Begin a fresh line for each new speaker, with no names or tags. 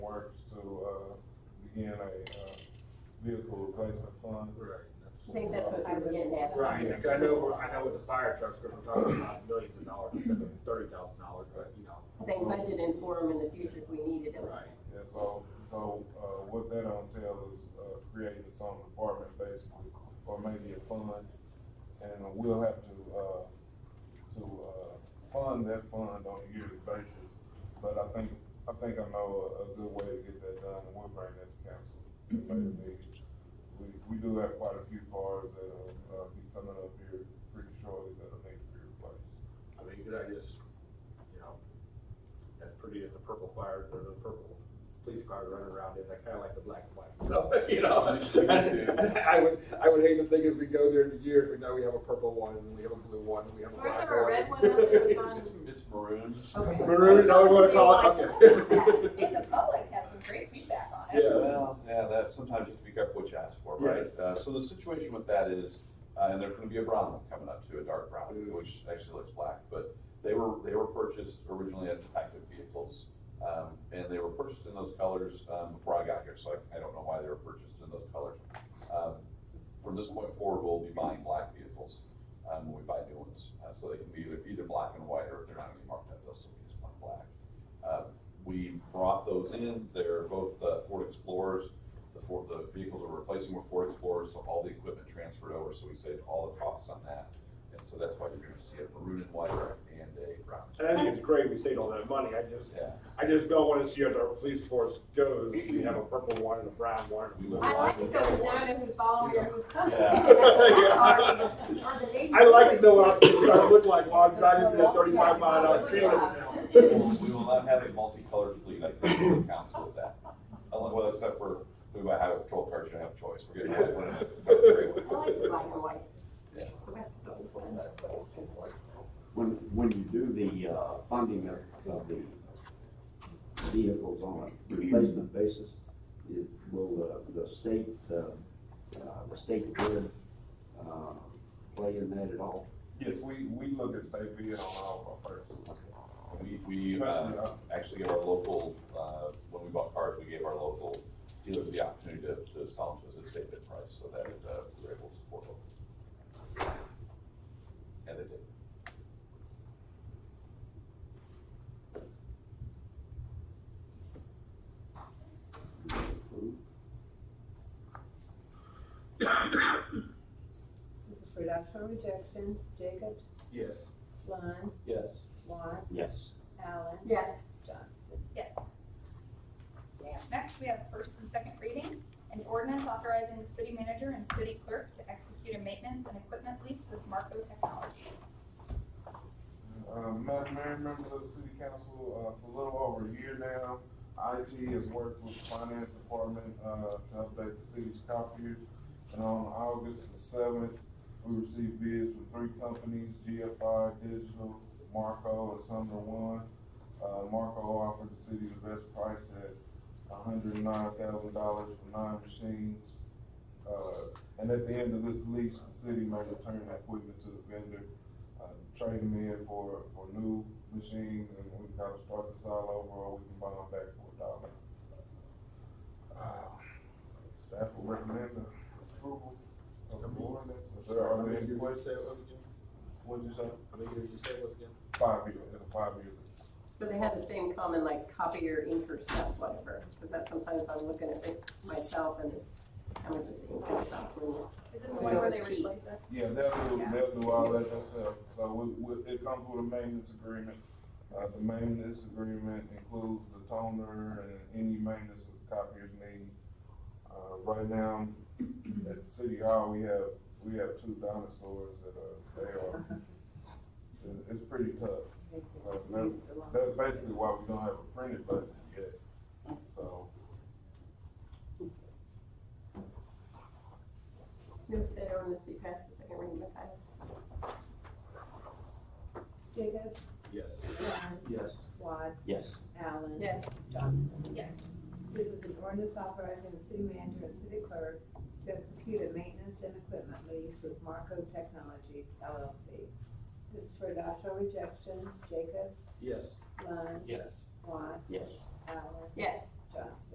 Works to, uh, begin a, uh, vehicle replacement fund.
Right.
I think that's what you were getting at.
Right, like, I know, I know with the fire trucks, because we're talking about millions of dollars, instead of thirty thousand dollars, but, you know.
I think budget and form in the future if we needed them.
Right.
Yeah, so, so, uh, what that entails is, uh, creating its own department basically, or maybe a fund. And we'll have to, uh, to, uh, fund that fund on a yearly basis. But I think, I think I know a, a good way to get that done, and we'll bring that to council. at a later meeting. We, we do have quite a few cars that'll, uh, be coming up here pretty shortly that'll need to be replaced.
I mean, could I just, you know, that's pretty as the purple fire, or the purple police car running around is, I kinda like the black and white, so, you know. I would, I would hate to think if we go there in a year, we know we have a purple one, and we have a blue one, and we have a
Where's
black
there a
one.
red one up there in front?
It's maroon.
Okay.
Maroon, no, we wanna call it, okay.
And the public had some great feedback on it.
Yeah.
Well, yeah, that, sometimes you have to be careful what you ask for, right? Uh, so the situation with that is, uh, and there's gonna be a brown one coming up too, a dark brown, which actually looks black, but they were, they were purchased originally as detective vehicles. Um, and they were purchased in those colors, um, before I got here, so I, I don't know why they were purchased in those colors. Um, From this point forward, we'll be buying black vehicles, um, when we buy new ones, uh, so they can be either, either black and white, or if they're not gonna be marked up, they'll still be just plain black. Uh, We brought those in, they're both uh, Ford Explorers, the Ford, the vehicles we're replacing were Ford Explorers, so all the equipment transferred over, so we saved all the costs on that. And so that's why you're gonna see a maroon and white and a brown.
And I think it's great we saved all that money, I just,
Yeah.
I just don't wanna see as our police force goes, we have a purple one and a brown one. and a blue
I
one
like to
and a yellow
go
one.
down and who's following or who's coming. Or the
Yeah.
neighbor.
I like to know what I look like while I'm driving through that thirty-five mile an hour street over now.
We will- we will not have a multicolored fleet, I think, for the council with that. Unless, well, except for, we might have a patrol car, should have a choice, we're getting one of them.
I like the black and white.
When, when you do the, uh, funding of, of the vehicles on a replacement basis, it will, uh, the state, uh, uh, the state grid, uh, play in that at all?
Yes, we, we look at state bid on all of our purchases.
We, we, uh, actually gave our local, uh, when we bought cars, we gave our local dealers the opportunity to, to sell them to us at a state bid price, so that, uh, we were able to support them. And they did.
This is for adoption or rejection, Jacobs,
Yes.
Lund,
Yes.
Watts,
Yes.
Allen,
Yes,
Johnson.
Yes. Next, we have first and second reading, an ordinance authorizing the city manager and city clerk to execute a maintenance and equipment lease with Marco Technologies.
Uh, Madam Mayor, members of the city council, uh, for a little over a year now, IT has worked with the finance department, uh, to update the city's copier. And on August the seventh, we received bids from three companies, GFI Digital, Marco, and Sumner One. Uh, Marco offered the city the best price at hundred and nine thousand dollars for nine machines. Uh, and at the end of this lease, the city may return the equipment to the vendor uh, trade them in for, for new machines, and we can kind of start this all over, or we can buy them back for a dollar. Uh, Staff will recommend the approval of the ordinance. Is there- Are there any questions? What'd you say?
I mean, you say what's again?
Five years, it's a five year.
but they have the same common like copier, inker stuff, whatever, because that sometimes I'm looking at it myself and it's, how much is ink costs when you-
Is it the one where they replace it?
Yeah, they'll do, they'll do all that themselves, so we, we, it comes with a maintenance agreement. Uh, the maintenance agreement includes the toner and any maintenance that the copiers need. Uh, right now, at City Hall, we have, we have two dinosaurs that are, they are, it- it's pretty tough. Like, That's that's basically why we don't have a printed budget yet, so.
Move said ordinance be passed the second reading by title.
Jacobs,
Yes.
Lund,
Yes.
Watts,
Yes.
Allen.
Yes,
Johnson.
Yes.
This is an ordinance authorizing the city manager and city clerk to execute a maintenance and equipment lease with Marco Technologies LLC. This is for adoption or rejection, Jacobs,
Yes.
Lund,
Yes.
Watts,
Yes.
Allen,
yes,
Johnston.